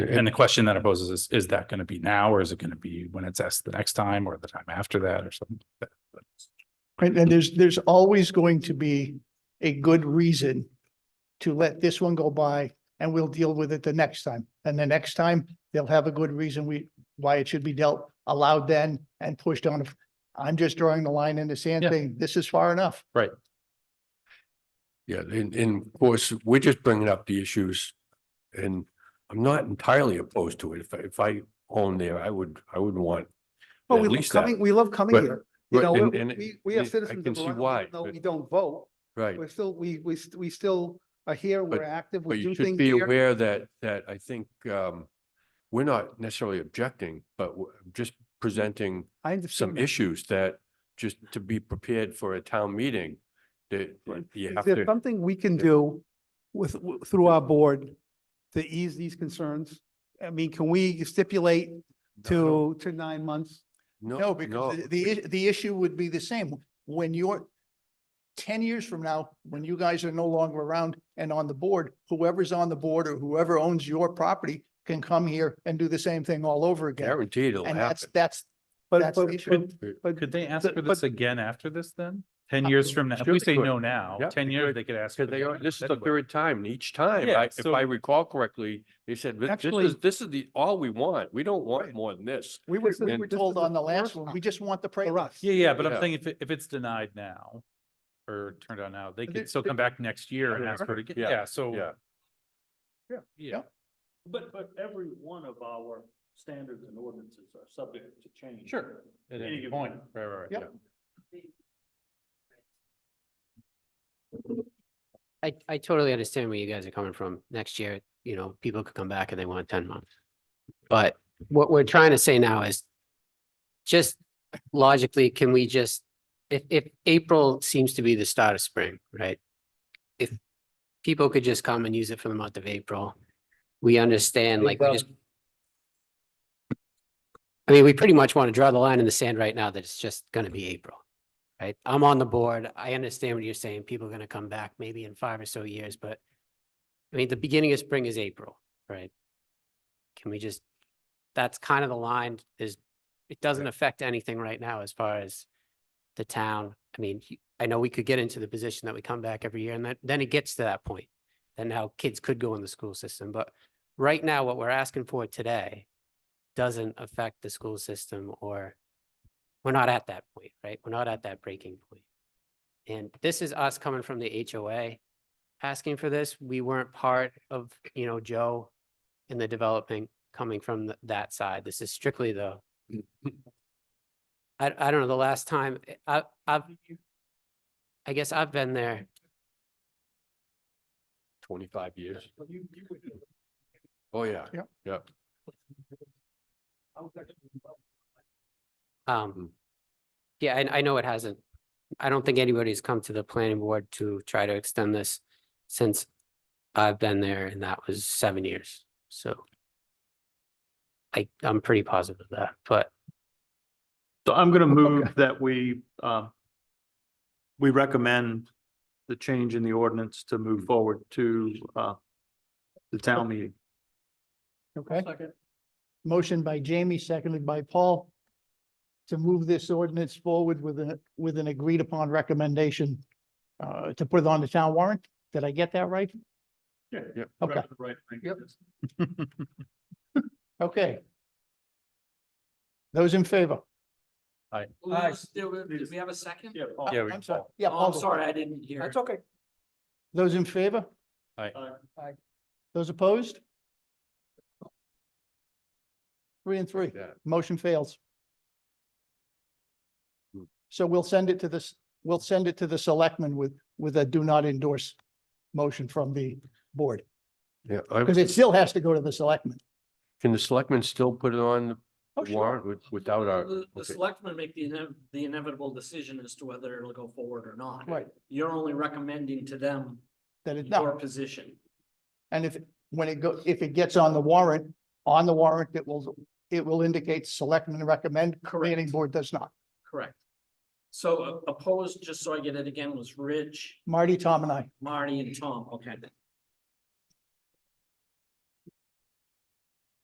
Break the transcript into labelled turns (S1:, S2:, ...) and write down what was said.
S1: And the question that it poses is, is that going to be now or is it going to be when it's asked the next time or the time after that or something? like that?
S2: Right, and there's, there's always going to be a good reason to let this one go by and we'll deal with it the next time. And the next time, they'll have a good reason we, why it should be dealt, allowed then and pushed on. I'm just drawing the line in the sand
S1: Yeah.
S2: saying this is far enough.
S3: Yeah, and, and of course, we're just bringing up the issues and I'm not entirely opposed to it. If, I- if I own there, I would, I would want.
S4: Well,
S3: at
S4: we love
S3: least that.
S4: coming, we love coming
S3: But-
S4: here. You
S3: Right,
S4: know,
S3: and-
S4: we-
S3: and
S4: we, we have
S3: I
S4: citizens
S3: can
S4: of
S3: see
S4: Arundel,
S3: why,
S4: even though
S3: but-
S4: we don't vote.
S3: Right,
S4: We're still, we, we, st- we still are here, we're active,
S3: but
S4: we
S3: you
S4: do
S3: should
S4: things
S3: be
S4: here.
S3: aware that, that I think, um, we're not necessarily objecting, but we're just presenting
S4: I understand
S3: some
S4: that.
S3: issues that just to be prepared for a town meeting that
S4: Right.
S3: you
S4: Is
S3: have
S4: there
S3: to,
S4: something we can do with, w- through our board to ease these concerns? I mean, can we stipulate to, to nine months?
S2: No,
S3: no, no.
S2: because the- the, i- the issue would be the same. When you're ten years from now, when you guys are no longer around and on the board, whoever's on the board or whoever owns your property can come here and do the same thing all over again.
S3: Guaranteed it'll
S2: And that's,
S3: happen.
S2: that's,
S4: But,
S2: That's the
S4: but,
S2: issue.
S4: but- but
S1: Could they ask
S4: the-
S1: for
S4: but-
S1: this again after this then? Ten years from now, if
S3: Sure
S1: we
S3: they
S1: say
S3: could.
S1: no now,
S3: Yeah,
S1: ten
S3: they
S1: years
S3: could.
S1: they could ask. for
S3: Because they
S1: it
S3: are, this is the
S1: anyway.
S3: third time, and each time,
S1: Yeah,
S3: I- if
S1: so-
S3: I recall correctly, they said, "This- this
S4: Actually-
S3: is, this is the, all we want. We don't want
S2: Right.
S3: more than this.
S2: we were,
S4: This is-
S2: we were
S4: this
S2: told
S4: is the
S2: on the last
S4: first
S2: one,
S4: time.
S2: we just want the
S4: for
S2: prelude.
S4: us.
S1: Yeah, yeah, but I'm
S3: Yeah.
S1: saying if, it- if it's denied now or turned down now, they
S4: There-
S1: could still
S4: there-
S1: come back next year and
S3: Yeah.
S1: ask for it again.
S3: Yeah.
S1: Yeah, so.
S3: Yeah.
S4: Yeah.
S1: Yeah,
S5: But, but every one of our standards and ordinances are subject to change.
S1: Sure. at
S5: Any
S1: any
S5: given
S1: point,
S5: time.
S1: right, right, right.
S2: Yep.
S1: yeah.
S6: I, I totally understand where you guys are coming from. Next year, you know, people could come back and they want ten months. But what we're trying to say now is just logically, can we just, if, if April seems to be the start of spring, right? If people could just come and use it for the month of April, we understand like, we just. I mean, we pretty much want to draw the line in the sand right now that it's just going to be April. Right? I'm on the board. I understand what you're saying. People are going to come back maybe in five or so years, but I mean, the beginning of spring is April, right? Can we just, that's kind of the line is, it doesn't affect anything right now as far as the town. I mean, you- I know we could get into the position that we come back every year and that, then it gets to that point. Then now kids could go in the school system, but right now what we're asking for today doesn't affect the school system or we're not at that point, right? We're not at that breaking point. And this is us coming from the HOA asking for this. We weren't part of, you know, Joe and the development coming from th- that side. This is strictly the
S1: Mm.
S6: I, I don't know, the last time, eh, I, I've I guess I've been there.
S3: Twenty-five years. Oh, yeah.
S2: Yep.
S3: Yeah. Mm.
S1: Mm.
S6: Um, yeah, I, I know it hasn't. I don't think anybody's come to the planning board to try to extend this since I've been there and that was seven years, so. I, I'm pretty positive of that, but
S5: So I'm gonna move that we, um, we recommend the change in the ordinance to move forward to, uh, the town meeting.
S2: Okay. Motion by Jamie, seconded by Paul to move this ordinance forward with an, with an agreed upon recommendation uh, to put it on the town warrant. Did I get that right?
S5: Yeah,
S3: Yep.
S2: Okay.
S5: Right.
S2: Yep. Okay. Those in favor?
S7: We have a-
S5: Nice.
S7: do we do
S5: Please.
S7: we have a second?
S5: Yeah. Paul.
S1: Yeah, we-
S2: I'm sorry. Yeah,
S7: Oh, I'm
S2: Paul.
S7: sorry, I didn't hear.
S4: That's okay.
S2: Those in favor?
S5: Uh,
S2: Those opposed? Three and three.
S3: Yeah.
S2: Motion fails.
S3: Hmm.
S2: So we'll send it to this, we'll send it to the selectmen with, with a do not endorse motion from the board,
S3: Yeah. I-
S2: because it still has to go to the selectmen.
S3: Can the selectmen still put it on the warrant with- without our?
S7: The, the
S3: Uh, okay.
S7: selectmen make the inev- the inevitable decision as to whether it'll go forward or not.
S2: Right,
S7: You're only recommending to them
S2: that it,
S7: your
S2: no,
S7: position.
S2: and if, when it go, if it gets on the warrant, on the warrant, it will, it will indicate selectmen recommend, planning
S7: Correct.
S2: board does not.
S7: Correct. So uh, opposed, just so I get it again, was Rich,
S2: Marty, Tom and I.
S7: Marty and Tom. Okay.